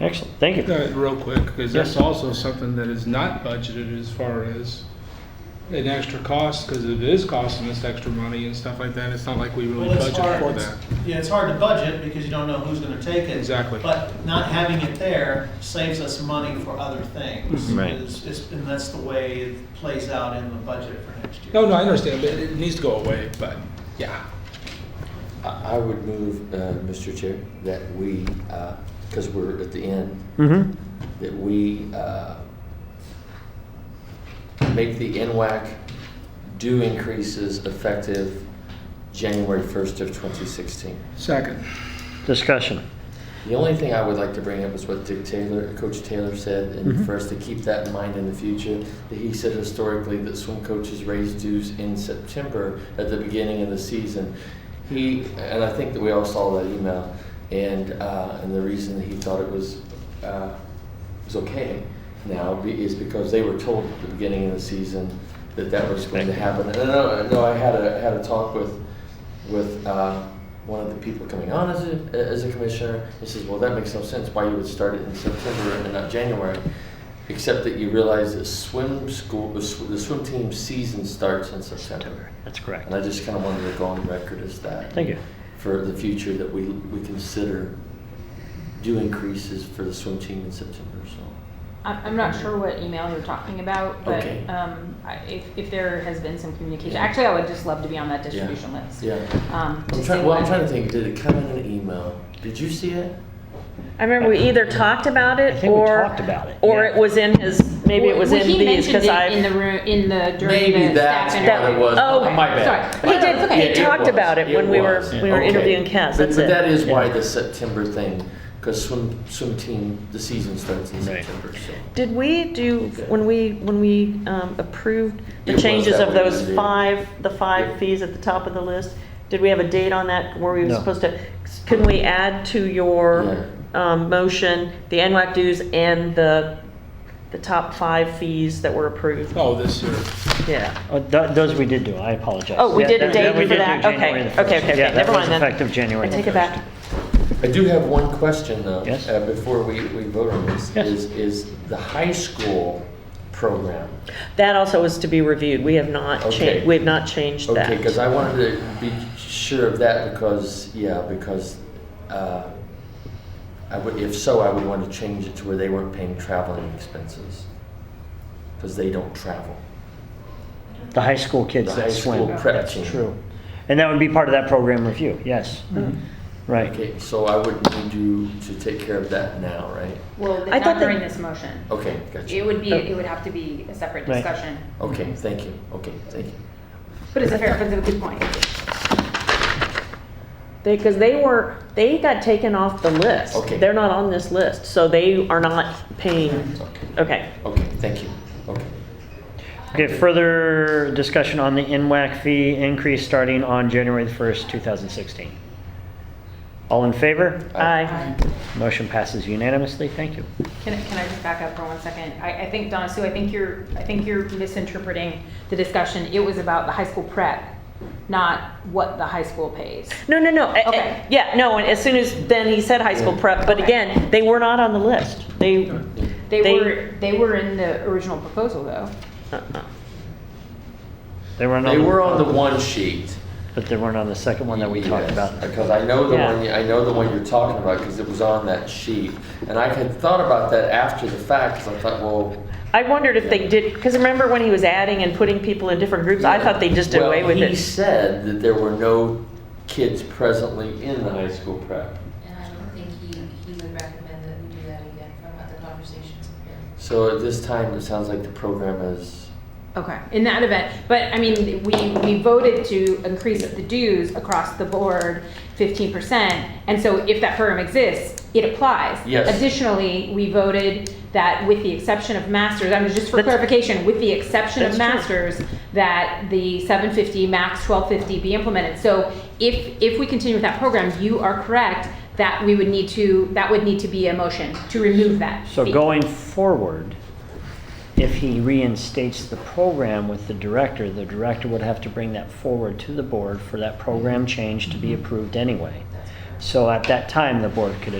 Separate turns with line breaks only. Excellent, thank you.
Uh, Real quick, because that's
Yes.
also something that is not budgeted as far as an extra cost, because it is costing us extra money and stuff like that. It's not like we really
Well, it's
budget
hard-
for
it's-
that.
Yeah, it's hard to budget because you don't know who's gonna take it.
Exactly.
But not having it there saves us money for other things.
Mhm. Right.
It's- it's- And that's the way it plays out in the budget for next year.
No, no, I understand, but it needs to go away, but, yeah.
I I would move, uh, Mr. Chair, that we, because we're at the end,
Mm-hmm.
that we uh, make the NWAC due increases effective January 1st of 2016.
Second.
Discussion.
The only thing I would like to bring up is what Dick Taylor, Coach Taylor said, and
Mhm.
for us to keep that in mind in the future, that he said historically that swim coaches raise dues in September at the beginning of the season. He, and I think that we all saw that email, and, uh, and the reason that he thought it was, uh, was okay now be- is because they were told at the beginning of the season that that was going to happen. And no, no, I had a, had a talk with, with uh, one of the people coming on as a, as a commissioner. He says, well, that makes no sense why you would start it in September and not January, except that you realize that swim school, the sw- the swim team season starts in September.
That's correct.
And I just kind of wanted to go on record as that.
Thank you.
For the future, that we, we consider due increases for the swim team in September, so.
I'm, I'm not sure what email you're talking about, but
Okay.
um, I- if, if there has been some communication,
Yeah.
actually, I would just love to be on that
Yeah.
distribution list.
Yeah.
Um, to
I'm
see
trying, well, I'm
what-
trying to think, did it come in an email? Did you see it?
I remember we either talked about
I
it
think we
or.
talked about it,
Or
yeah.
it was in his, maybe it was
Well,
in
he
these,
mentioned
because
it
I.
In the room, in the, during
Maybe
the
that's
staff
what
interview.
it was.
Oh,
My bad.
Sorry.
He
No, it's
did,
okay.
he talked
was.
about it when we were,
was.
we were
Okay.
interviewing Cass,
But-
that's
But that
it.
is why
Yeah.
the September thing, because swim, swim team, the season starts in
Right.
September, so.
Did we do, when we, when we um, approved
It
the
was
changes
that
of
we
those
did.
five, the
Yeah.
five fees at the top of the list, did we have a date on that where we were
No.
supposed to, can we add to your um, motion, the NWAC dues and the, the top five fees that were approved?
Oh, this year.
Yeah.
Oh, th- Those we did do, I apologize.
Oh, we
Yeah,
did a date
we did
for
do
that?
January
Okay.
the first.
Okay, okay, okay.
Yeah, that
Never
was
mind then.
Effective January.
I
the
take it
first.
back.
I do have one question though.
Yes.
uh, Before we, we vote on this,
Yes.
is, is the high school program.
That also is to be reviewed. We have not
Okay.
changed, we have not changed that.
Okay, because I wanted to be sure of that because, yeah, because, uh, I would, if so, I would want to change it to where they weren't paying traveling expenses. Because they don't travel.
The high school kids
The
that
high school
swim.
prep
That's
team.
true. And that would be part of that program review, yes.
Mm-hmm.
Right.
Okay, so I would need you to take care of that now, right?
Well,
I
it's
thought
not
that-
during this motion.
Okay,
It
gotcha.
would be, it would have to be a separate
Right.
discussion.
Okay, thank you, okay, thank you.
But it's a fair, but it's a good point.
They, because they were, they got taken off the list.
Okay.
They're not on this list, so they are not paying,
Okay,
okay.
okay, thank you, okay.
Okay, further discussion on the NWAC fee increase starting on January the 1st, 2016. All in favor?
Aye.
Motion passes unanimously, thank you.
Can, can I just back up for one second? I, I think, Donna Sue, I think you're, I think you're misinterpreting the discussion. It was about the high school prep, not what the high school pays.
No, no, no. eh, eh,
Okay.
Yeah, no, and as soon as, then he said high school prep, but
Okay.
again, they were not on the list. They,
They
They-
were, they were in the original proposal, though.
uh-uh.
They weren't on.
They were on the one sheet.
But they weren't on the second one that we talked
Yes,
about.
Because I know the
Yeah.
one, I know the one you're talking about, because it was on that sheet. And I had thought about that after the fact, because I thought, well.
I wondered if they did, because remember when he was adding and putting people in different groups? I thought they just did
Well,
away with
He
it.
said that there were no kids presently in the high school prep.
And I don't think he, he would recommend that we do that again from other conversations here.
So at this time, it sounds like the program is,
Okay. In that event, but I mean, we, we voted to increase the dues across the board fifteen percent. And so if that program exists, it applies.
Yes.
Additionally, we voted that with the exception of masters, I mean, just for
That's-
clarification, with the exception of
That's true.
masters, that the seven fifty, max twelve fifty be implemented. So if, if we continue with that program, you are correct that we would need to, that would need to be a motion to remove that.
So
fee.
going forward, if he reinstates the program with the director, the director would have to bring that forward to the board for that program change to be approved anyway. So at that time, the board could